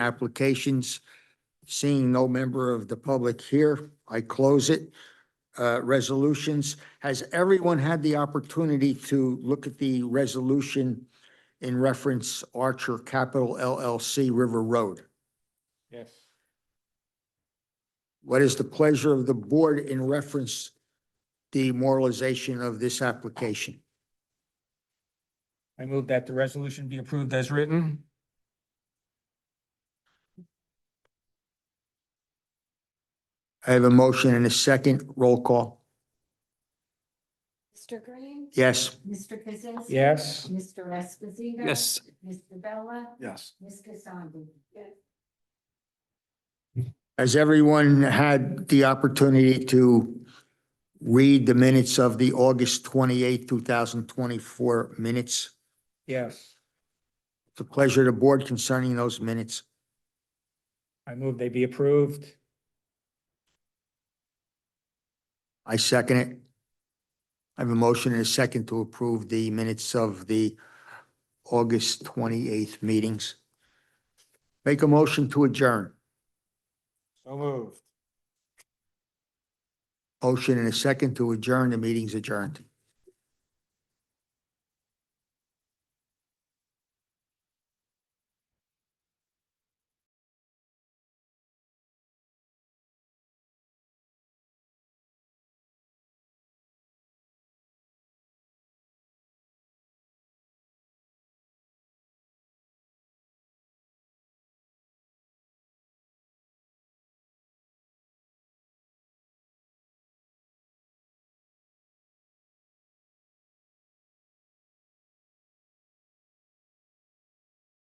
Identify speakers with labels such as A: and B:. A: applications. Seeing no member of the public here, I close it. Uh, resolutions. Has everyone had the opportunity to look at the resolution in reference Archer Capital LLC River Road?
B: Yes.
A: What is the pleasure of the board in reference the moralization of this application?
B: I move that the resolution be approved as written.
A: I have a motion and a second. Roll call.
C: Mr. Green?
A: Yes.
C: Mr. Kaczynski?
B: Yes.
C: Mr. Esposito?
D: Yes.
C: Mr. Bella?
D: Yes.
C: Ms. Cassandra? Yes.
A: Has everyone had the opportunity to read the minutes of the August twenty-eighth, two thousand twenty-four minutes?
B: Yes.
A: It's a pleasure to board concerning those minutes.
B: I move they be approved.
A: I second it. I have a motion and a second to approve the minutes of the August twenty-eighth meetings. Make a motion to adjourn.
B: So moved.
A: Motion and a second to adjourn. The meeting's adjourned.